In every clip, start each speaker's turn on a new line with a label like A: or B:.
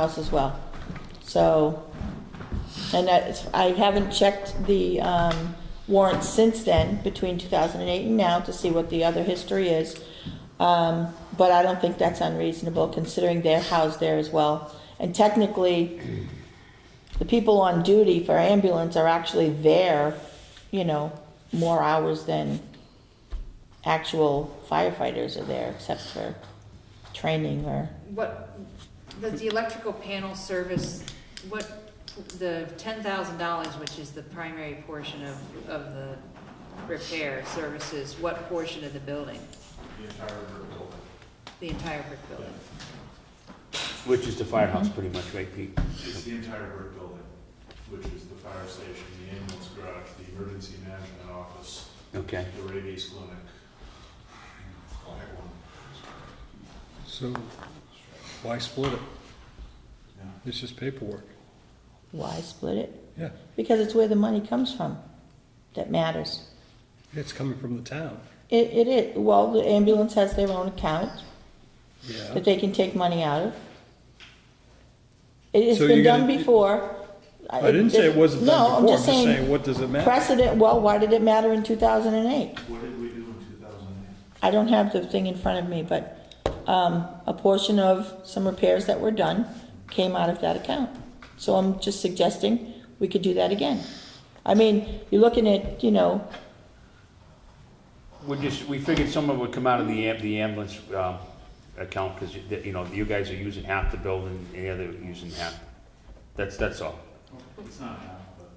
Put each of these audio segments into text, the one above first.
A: house as well. So, and that's, I haven't checked the um, warrants since then, between 2008 and now, to see what the other history is. Um, But I don't think that's unreasonable, considering they're housed there as well. And technically, the people on duty for ambulance are actually there, you know, more hours than actual firefighters are there, except for training or,
B: What, does the electrical panel service, what, the ten thousand dollars, which is the primary portion of, of the repair services, what portion of the building?
C: the entire brick building.
B: The entire brick building?
D: Which is the firehouse, pretty much, right, Pete?
C: It's the entire brick building, which is the fire station, the ambulance garage, the emergency management office,
D: Okay.
C: the rabies clinic. All at one.
E: So why split it?
C: Yeah.
E: It's just paperwork.
A: why split it?
E: Yeah,
A: Because it's where the money comes from that matters.
E: it's coming from the town.
A: It, it is, well, the ambulance has their own account
E: Yeah.
A: that they can take money out of. It has
E: So
A: been
E: you're
A: done
E: gonna-
A: before.
E: I didn't say it wasn't
A: No,
E: done
A: I'm
E: before,
A: just
E: I'm just saying,
A: saying,
E: what does it matter?
A: precedent, well, why did it matter in two thousand and eight?
C: What did we do in two thousand eight?
A: I don't have the thing in front of me, but, um, a portion of some repairs that were done came out of that account. So I'm just suggesting we could do that again. I mean, you're looking at, you know,
D: We just, we figured some of it would come out of the am- the ambulance um, account, because, you know, you guys are using half the building, and the other using half. That's, that's all.
C: It's not half, but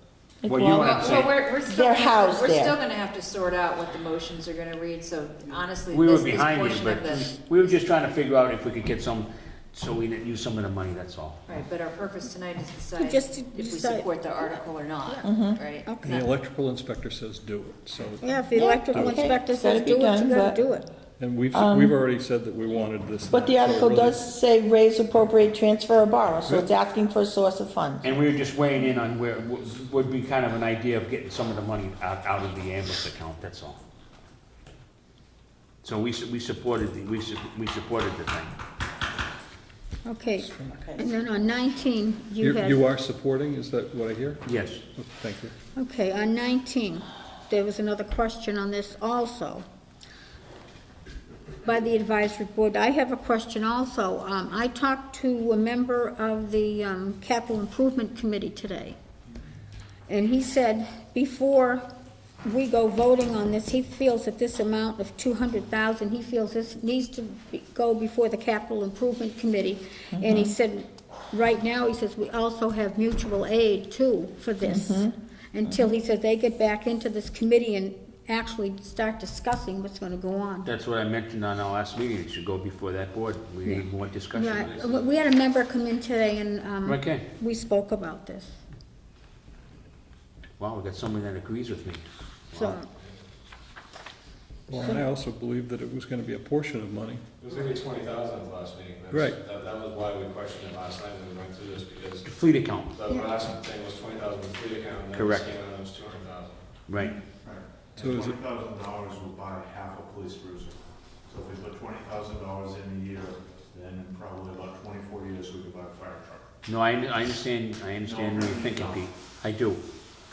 A: it-
D: Well, you
A: well,
D: What I'm
B: Well,
D: saying-
B: well, we're, we're still.
A: They're housed
B: We're
A: there.
B: still gonna have to sort out what the motions are gonna read, so honestly,
D: We were
B: this, this
D: behind you,
B: portion
D: but
B: of the,
D: we were just trying to figure out if we could get some, so we didn't use some of the money, that's all.
B: right, but our purpose tonight is to
F: But just to
B: decide if we
F: decide.
B: support the article or not, right?
F: Okay.
E: And the electrical inspector says do it, so,
F: Yeah, if the
A: Yeah,
F: electrical
A: okay.
F: inspector
A: Gotta
F: says
A: be
F: do it,
A: done, but-
F: you gotta do it.
E: and we've,
A: Um,
E: we've already said that we wanted this.
A: But the
E: now, so
A: article
E: really-
A: does say raise, appropriate, transfer, or borrow, so it's asking for a source of funds.
D: And we were just weighing in on where, would would be kind of an idea of getting some of the money out, out of the ambulance account, that's all. So we, su- we supported, the we, su- we supported the thing.
F: Okay. And then on 19, you
E: You,
F: had...
E: you are supporting, is that what I hear?
D: Yes.
E: Oh, Thank you.
F: Okay, on 19, there was another question on this also by the advisory board. I have a question also. Um, I talked to a member of the um, capital improvement committee today, and he said before we go voting on this, he feels that this amount of 200,000, he feels this needs to be- go before the capital improvement committee. And he said, right now, he says, we also have mutual aid too for this, until he says they get back into this committee and actually start discussing what's gonna go on.
D: That's what I mentioned on our last meeting, it should go before that board, we need more discussion on
F: Right,
D: this.
F: we we had a member come in today and, um,
D: Okay,
F: we spoke about this,
D: wow, we got someone that agrees with me.
F: so,
D: Ah.
E: Well, I also believed that it was gonna be a portion of money.
G: It was gonna be twenty thousand at the last meeting. That's-
E: Right.
G: That, that was why we questioned it last night when we went through this, because
D: The Fleet account,
G: the
F: Yeah.
G: last thing was twenty thousand for the account, and then this
D: Correct.
G: came out, it was two hundred thousand.
D: right,
E: So is it-
C: Twenty thousand dollars will buy half a police cruiser. So if we put twenty thousand dollars in a year, then in probably about twenty-four years, we could buy a fire truck.
D: no, I, I understand, I understand what you're thinking, Pete, I do.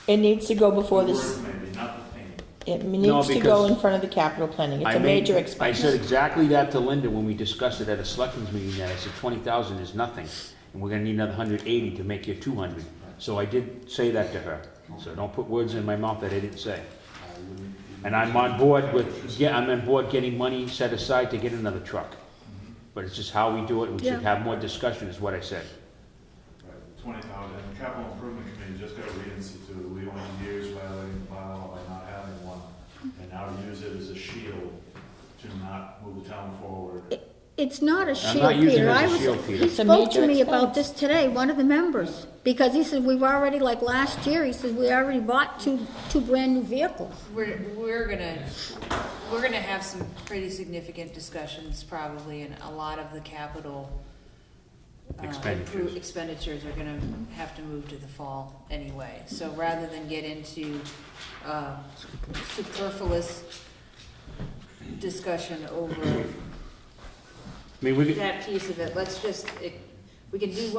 A: It needs to go before this,
C: The word maybe, not the thing.
A: it needs to go
D: because-
A: in front of the capital planning, it's
D: I
A: a
D: made-
A: major
D: I said
A: expense.
D: exactly that to Linda when we discussed it at a selectmen's meeting, that I said twenty thousand is nothing, and we're gonna need another hundred eighty to make you two hundred. So I did say that to her, so don't put words in my mouth that I didn't say. And I'm on board with, yeah, I'm on board getting money set aside to get another truck. But it's just how we do it, we should
F: Yeah.
D: have more discussion, is what I said.
C: Twenty thousand, and the capital improvement committee just got reinstituted, we went years violating the bylaw by not having one, and now use it as a shield to not move the town forward.
F: it's not a
D: I'm not
F: shield,
D: using it
F: Peter,
D: as
F: I
D: a
F: was,
D: shield, Peter.
F: he
A: It's a
F: spoke to
A: major
F: me about
A: expense.
F: this today, one of the members, because he said, we've already, like last year, he said, we already bought two, two brand-new vehicles.
B: We're, we're gonna, we're gonna have some pretty significant discussions probably, and a lot of the capital uh,
D: Expenditures.
B: impro- expenditures are gonna have to move to the fall anyway. So rather than get into uh, superfluous discussion over
D: I mean, we could,
B: that piece of it, let's just, it- we can do one